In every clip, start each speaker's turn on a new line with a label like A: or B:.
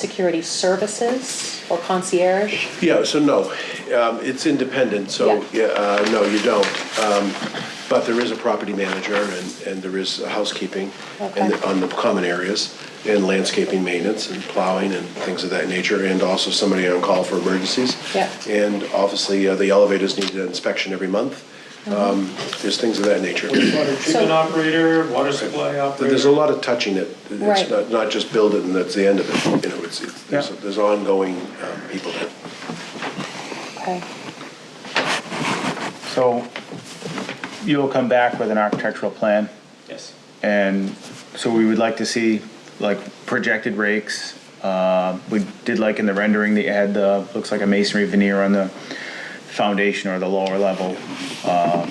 A: security services or concierge?
B: Yeah, so no, um, it's independent, so,
A: Yeah.
B: yeah, uh, no, you don't. Um, But there is a property manager and, and there is housekeeping and
A: Okay.
B: on the common areas and landscaping maintenance and plowing and things of that nature, and also somebody on call for emergencies.
A: Yeah.
B: And obviously, uh, the elevators need an inspection every month.
A: Mm-hmm.
B: Um, There's things of that nature.
C: Water treatment operator, water supply operator.
B: There's a lot of touching it. It's
A: Right.
B: not, not just build it and that's the end of it, you know, it's, it's- there's,
C: Yeah.
B: there's ongoing um, people that
A: Okay.
D: So you'll come back with an architectural plan,
C: Yes.
D: and so we would like to see like projected rakes. Uh, We did like in the rendering that you had the, looks like a masonry veneer on the foundation or the lower level.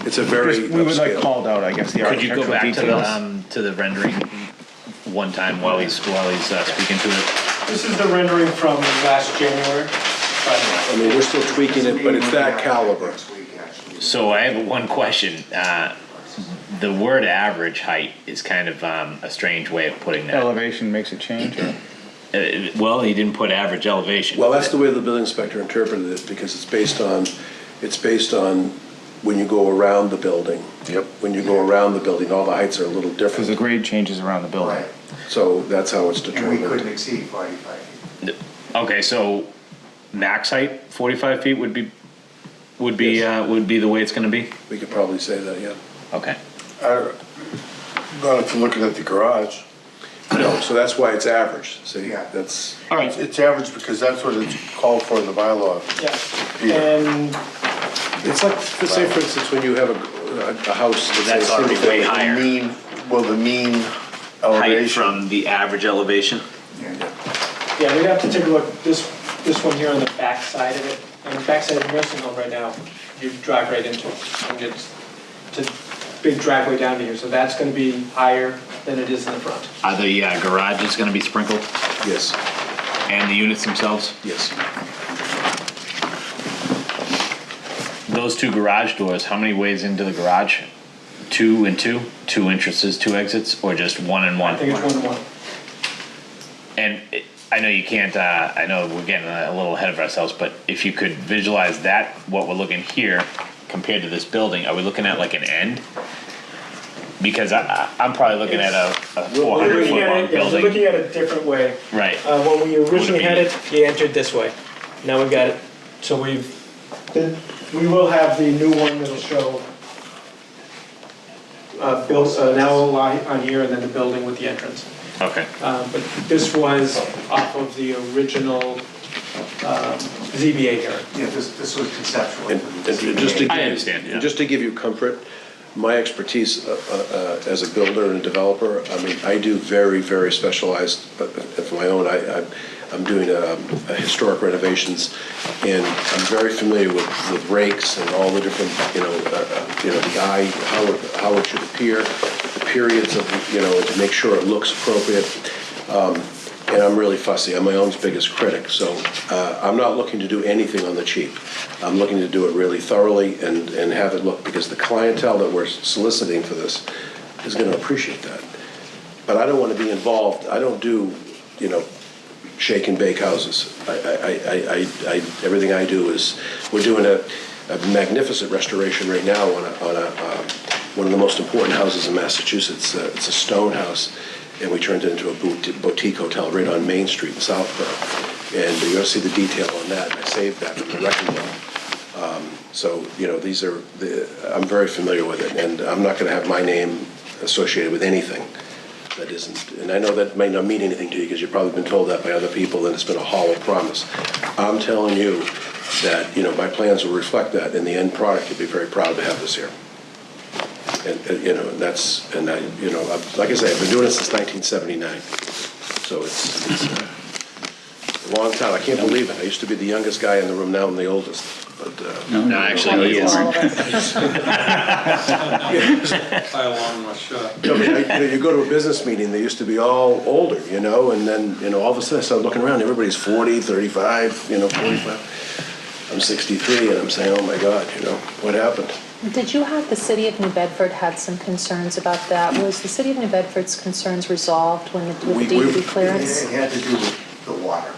B: It's a very
D: Just- We would like
B: upscale.
D: called out, I guess, the
E: Could you
D: architectural
E: go back to the,
D: details.
E: um, to the rendering one time while he's, while he's uh, speaking to it?
C: This is the rendering from last January. Right.
B: I mean, we're still tweaking it, but it's that caliber.
E: So I have one question. Uh, the word average height is kind of, um, a strange way of putting that.
D: Elevation makes a change, or?
E: Uh, well, he didn't put average elevation.
B: Well, that's the way the building inspector interpreted it, because it's based on, it's based on when you go around the building. Yep. When you go around the building, all the heights are a little
D: Because the
B: different,
D: grade changes around the building.
F: Right,
B: so that's how it's
F: and we couldn't
B: determined.
F: exceed forty-five feet.
E: Okay, so max height, forty-five feet would be, would be, uh, would be the way it's gonna be?
B: We could probably say that, yeah.
E: Okay.
G: Not if you're looking at the garage.
B: No, so that's why it's average, see,
F: Yeah.
B: that's,
E: All
G: It's-
E: right,
G: It's average because that's what it's called for in the bylaw.
C: Yeah.
G: Peter.
C: And
B: it's like, say for instance, when you have a, a house that's
E: That's
B: a single
E: already
B: family.
E: way high. Higher.
G: The mean, well, the mean
E: height
G: elevation.
E: from the average elevation?
F: Yeah.
C: Yeah, we'd have to take a look, this, this one here on the back side of it, on the back side of the nursing home right now, you drive right into it, and it's, it's a big driveway down to here, so that's gonna be higher than it is in the front.
E: Are the uh, garages gonna be sprinkled
B: Yes,
E: and the units themselves?
B: yes.
E: Those two garage doors, how many ways into the garage? Two and two? Two entrances, two exits, or just one and one?
C: I think it's one to one.
E: And it, I know you can't, uh, I know we're getting a little ahead of ourselves, but if you could visualize that, what we're looking here compared to this building, are we looking at like an end? Because I, I, I'm probably looking at a, a four
C: We're
E: hundred
C: looking
E: foot
C: at
E: long
C: it- yeah, we're Looking
E: building.
C: at it a different way.
E: Right,
C: Uh, when we originally had
E: be-
C: it, you entered this way. Now we've got it, so we've, the- we will have the new one that'll show uh, built, an owl li- on here and then the building with the entrance.
E: okay.
C: Uh, But this was off of the original um, ZBA hearing.
F: Yeah, this, this was conceptual.
B: And and just to
E: I
B: give-
E: understand, yeah.
B: Just to give you comfort, my expertise uh, uh, uh, as a builder and a developer, I mean, I do very, very specialized, but of my own, I, I'm- I'm doing um, a historic renovations, and I'm very familiar with, with rakes and all the different, you know, uh, uh, you know, the eye, how it, how it should appear, the periods of, you know, to make sure it looks appropriate. Um, And I'm really fussy, I'm my own biggest critic, so uh, I'm not looking to do anything on the cheap. I'm looking to do it really thoroughly and, and have it look, because the clientele that we're soliciting for this is gonna appreciate that. But I don't wanna be involved, I don't do, you know, shake and bake houses. I, I, I- I, I, everything I do is, we're doing a, a magnificent restoration right now on a, on a, um, one of the most important houses in Massachusetts. Uh, It's a stone house, and we turned it into a boot- boutique hotel right on Main Street in Southborough. And you're gonna see the detail on that, and I saved that from the wrecking ball. Um, So, you know, these are, the- I'm very familiar with it, and I'm not gonna have my name associated with anything that isn't, and I know that may not mean anything to you, because you've probably been told that by other people, and it's been a hollow promise. I'm telling you that, you know, my plans will reflect that, and the end product, you'll be very proud to have this here. And, and, you know, and that's, and I, you know, I've- like I say, I've been doing it since 1979, so it's, it's uh, a long time, I can't believe it, I used to be the youngest guy in the room, now I'm the oldest, but, uh,
E: No, actually, he is.
A: All of us.
B: I mean, I- you know, you go to a business meeting, they used to be all older, you know, and then, you know, all of a sudden I started looking around, everybody's 40, 35, you know, 45. I'm 63 and I'm saying, oh my God, you know, what happened?
A: Did you have, the city of New Bedford had some concerns about that? Was the city of New Bedford's concerns resolved when the, with
B: We-
A: the
B: we-
A: DEP
F: It
A: clearance?
F: it had to do with